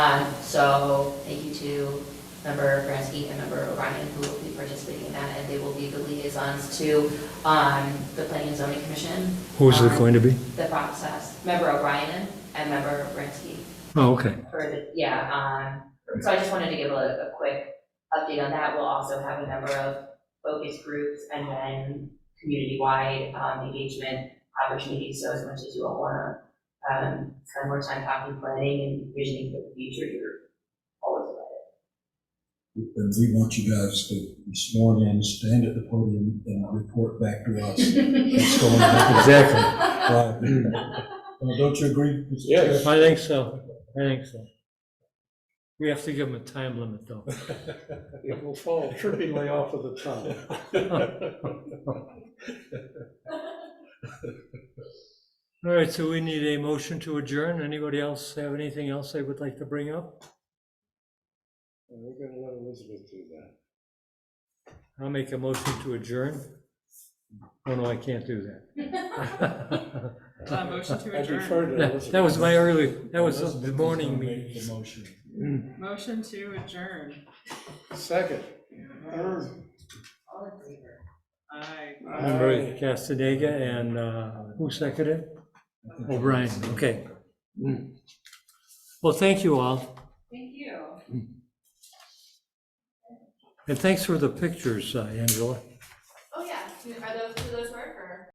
Um, So thank you to Member Bransky and Member O'Brien, who will be participating in that, and they will be the liaisons to um, the Planning and Zoning Commission. Who's it on going to be? The process, Member O'Brien and Member Bransky. Oh, okay. For the, yeah, um, so I just wanted to give a, a quick update on that. We'll also have a number of focus groups and then community-wide, um, engagement opportunities. So as much as you all wanna, um, spend more time talking, planning and visioning for the future, you're always welcome. And we want you guys to be sworn in, stand at the podium, and report back to us. It's going back and- Right. Well, Don't you agree? Mr. Yes. Chair? I think so. I think so. We have to give them a time limit, though. It will fall trippingly off of the tongue. All right, so we need a motion to adjourn. Anybody else have anything else they would like to bring up? We're gonna let Elizabeth do that. I'll make a motion to adjourn. Oh, no, I can't do that. Uh, motion to I adjourn. defer to That Elizabeth. that was my early, that was Elizabeth the is morning gonna make meeting. The motion. Motion to adjourn. Second. All in favor? Aye. Member Castaneda and uh, who seconded? it? O'Brien, okay. Well, thank you all, Thank you. and thanks for the pictures, uh, Angela. Oh, yeah, are those